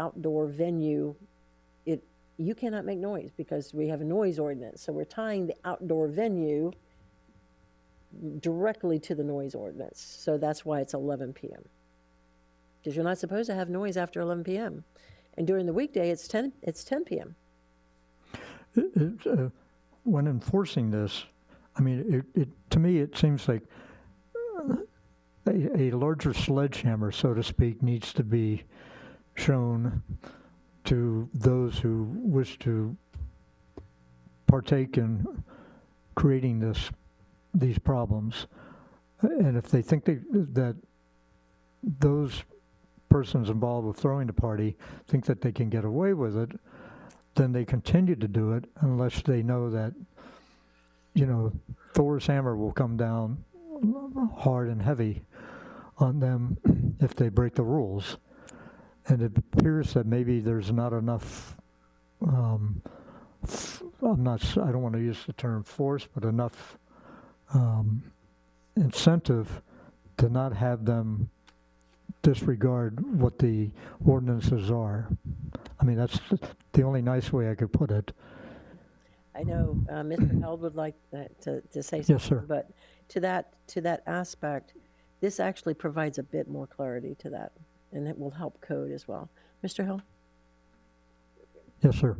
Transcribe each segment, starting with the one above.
outdoor venue, it, you cannot make noise because we have a noise ordinance. So we're tying the outdoor venue directly to the noise ordinance. So that's why it's 11 PM. Because you're not supposed to have noise after 11 PM. And during the weekday, it's 10, it's 10 PM. It- uh, when enforcing this, I mean, it, it, to me, it seems like uh, a, a larger sledgehammer, so to speak, needs to be shown to those who wish to partake in creating this, these problems. And if they think they, that those persons involved with throwing the party think that they can get away with it, then they continue to do it unless they know that, you know, Thor's hammer will come down hard and heavy on them if they break the rules. And it appears that maybe there's not enough, um, f- I'm not, s- I don't want to use the term force, but enough um, incentive to not have them disregard what the ordinances are. I mean, that's the only nice way I could put it. I know uh, Mr. Held would like uh, to, to say something. Yes, sir. But to that, to that aspect, this actually provides a bit more clarity to that, and it will help code as well. Mr. Held? Yes, sir.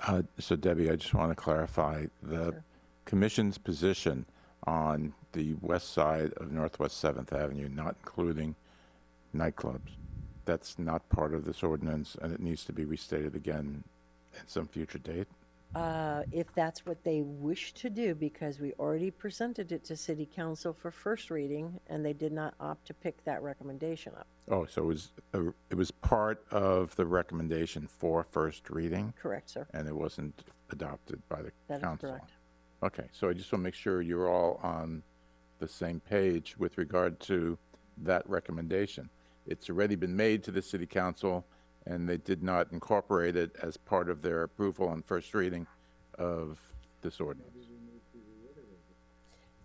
Uh, So Debbie, I just want to clarify, the commission's position on the west side of Northwest Seventh Avenue, not including nightclubs, that's not part of this ordinance, and it needs to be restated again at some future date? Uh, if that's what they wish to do, because we already presented it to city council for first reading, and they did not opt to pick that recommendation up. Oh, so it was, a- it was part of the recommendation for first reading, Correct, sir? and it wasn't adopted by the That is council? correct. Okay, so I just want to make sure you're all on the same page with regard to that recommendation. It's already been made to the city council, and they did not incorporate it as part of their approval on first reading of this ordinance.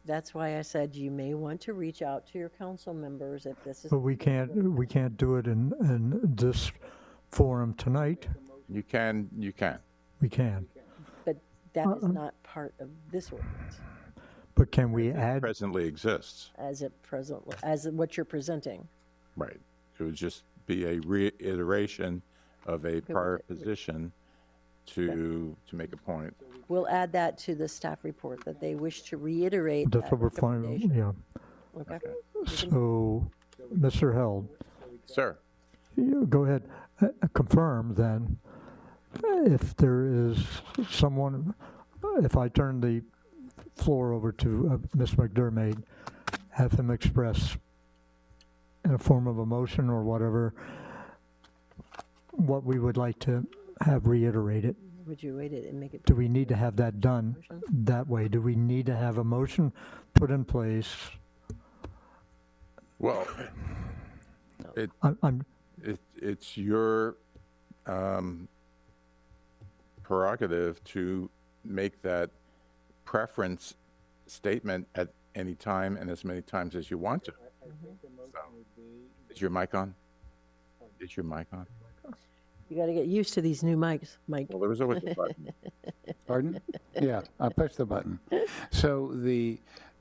That's why I said you may want to reach out to your council members if this is, But we can't, we can't do it in, in this forum tonight. You can, you can. We can. but that Uh-uh. is not part of this ordinance But can we add, Presently exists. as it presently, as what you're presenting. Right. It would just be a reiteration of a prior position to, to make a point. We'll add that to the staff report, that they wish to reiterate that's that what we're finding, recommendation. yeah. Okay? So, Mr. Held, Sir? you go ahead, uh, confirm then, if there is someone, if I turn the floor over to uh, Ms. McDermott, have him express in a form of a motion or whatever, what we would like to have reiterated. Would you wait it and make it? Do we need to have that done that way? Do we need to have a motion put in place? Well, I'm- I'm, It, it's your um, prerogative to make that preference statement at any time and as many times as you want to. So, Is your mic on? Is your mic on? You gotta get used to these new mics, Mike. Well, there was always a button. Pardon? Yeah, I pushed the button. So the,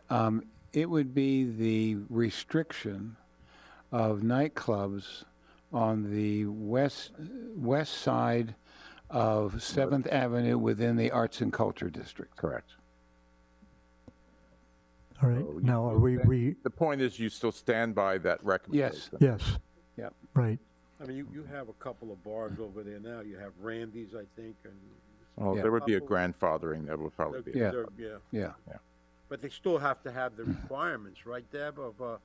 um, it would be the restriction of nightclubs on the west, west side of Seventh Avenue within the Arts and Culture District. Correct. all right, now are we, we, The point is you still stand by that recommendation. yes, Yep. right. I mean, you, you have a couple of bars over there now. You have Randy's, I think, and. Well, Yeah. there would be a grandfathering that would probably be. Yeah. They're- Yeah, Yeah. but they still have to have the requirements, right, Deb, of, uh,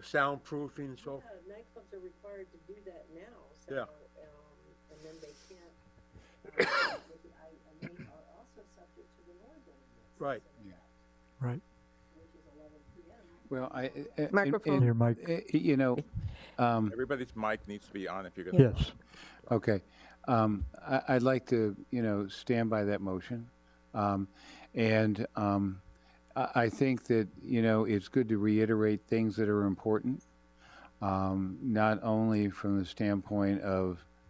soundproofing and so, Nightclubs are required to do that now, so, Yeah. um, and then they can't. And they are also subject to the noise ordinance, right. Right. Well, I. I- I- Microphone. Your mic. I- You know, um, Everybody's mic needs to be on if you're going to. Yes, Okay. Um, I, I'd like to, you know, stand by that motion. Um, and um, I, I think that, you know, it's good to reiterate things that are important, um, not only from the standpoint of